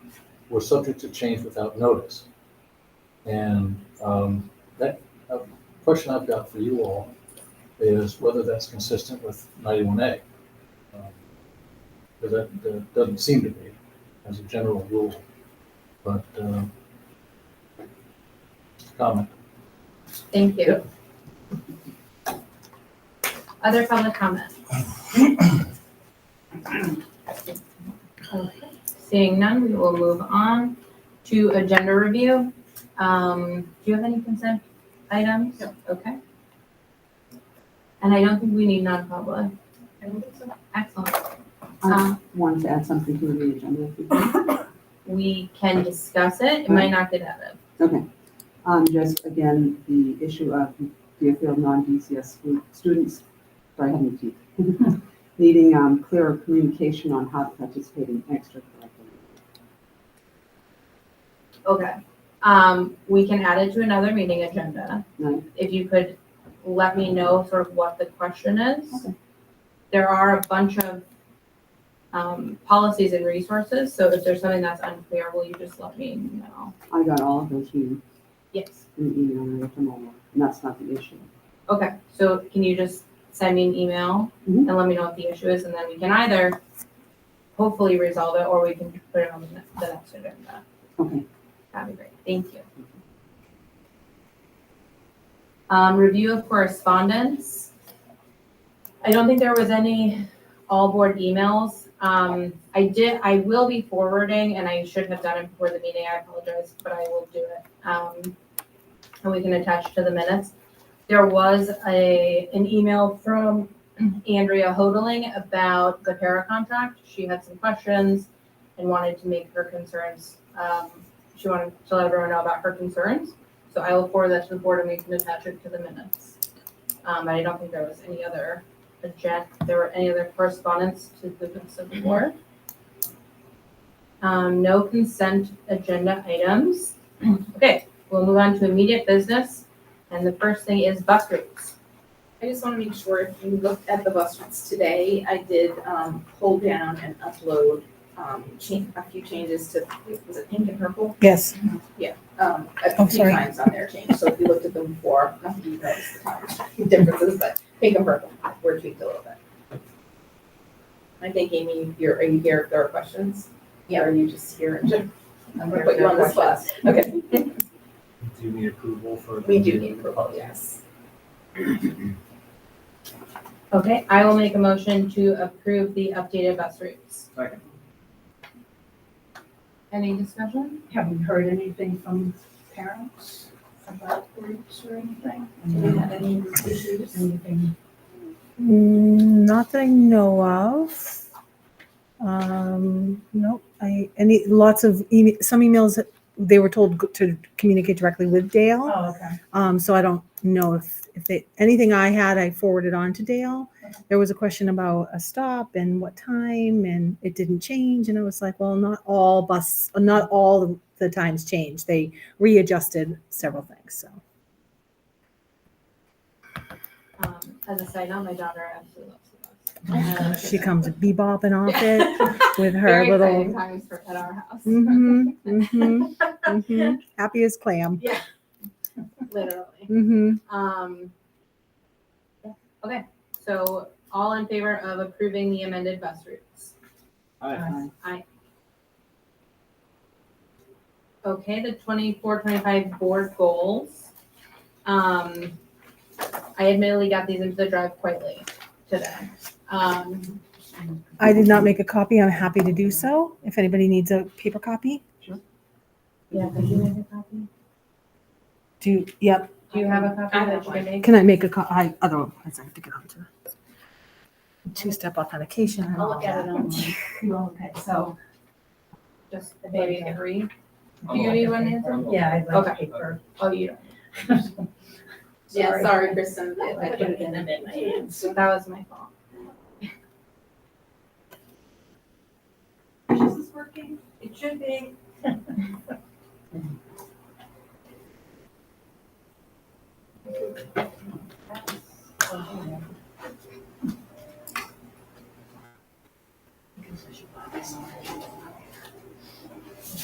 were subject to change without notice. And um, that, uh, question I've got for you all is whether that's consistent with ninety-one A. Um, Because that, that doesn't seem to be as a general rule, but, uh, comment. Thank you. Other public comment? Okay. Seeing none, we will move on to agenda review. Um, do you have any consent items? Okay. And I don't think we need non-public. I don't think so. Excellent. I Um, wanted to add something to the agenda. if you could. we can discuss it. It might not get out of. Okay. Um, just again, the issue of Deerfield non-DCS stu- students, sorry, I have teeth. Needing, um, clearer communication on how to participate in extracurricular. Okay. Um, we can add it to another meeting agenda. Right, if you could let me know sort of what the question is. Okay. There are a bunch of um, policies and resources, so if there's something that's unclear, will you just let me know? I got all of those in Yes. in the email and I left them all, there, and that's not the issue. Okay, so can you just send me an email Mhm. and let me know what the issue is, and then we can either hopefully resolve it, or we can put it on the ne- the next agenda. Okay, That'd be great, thank you. Um, review of correspondence. I don't think there was any all board emails. Um, I did, I will be forwarding, and I should have done it before the meeting, I apologize, but I will do it. Um, and we can attach to the minutes. There was a, an email from Andrea Hodling about the para contract. She had some questions and wanted to make her concerns, um, she wanted to let everyone know about her concerns. So I will forward that to the board and we can attach it to the minutes. Um, I don't think there was any other agenda, there were any other correspondence to the business of the board. Um, no consent agenda items. Okay, we'll move on to immediate business. And the first thing is bus routes. I just want to make sure if you looked at the bus routes today, I did um, pull down and upload um, cha- a few changes to, was it pink and purple? Yes, Um, Oh, A few sorry. times on their change, so if you looked at them before, not that you noticed the time differences, but pink and purple were tweaked a little bit. I think Amy, you're, are you here if there are questions? Yeah. Are you just here and just, I'm gonna put you on the spot. Okay, Do you need approval for? we do need approval, yes. Okay, I will make a motion to approve the updated bus routes. Second. Any discussion? Have we heard anything from parents about groups or anything? Have we had any issues? Anything? Mm, not that I know of. Um, no, I, any, lots of email, some emails, they were told go- to communicate directly with Dale. Oh, okay. Um, so I don't know if, if they, anything I had, I forwarded on to Dale. There was a question about a stop and what time, and it didn't change, and I was like, well, not all bus, not all the times changed. They readjusted several things, so. Um, as a side note, my daughter absolutely loves the Uh, bus. She comes bebopping off it with her Very little exciting times for at our house. Mhm, mhm, mhm. Happy as clam. Literally. Mm-hmm. Um, yeah. Okay, so all in favor of approving the amended bus routes? Aye. Okay, the 24-25 board goals. Um, I admittedly got these into the drive quite late today. Um, I did not make a copy. I'm happy to do so if anybody needs a paper copy. yeah, could you make a copy? Do, yep. Do you have a copy I that have you can make? Can I make a co- I, otherwise I have to get on to two-step authentication and I'll all look at it that. online. Okay, so. Just maybe agree? I'm Do you all- need one, Nancy? I'm all- Yeah, I'd Okay. like paper. Oh, you don't. Yeah, sorry, Kristen, I put it in a midnight. So that was my fault. Is this working? It should be.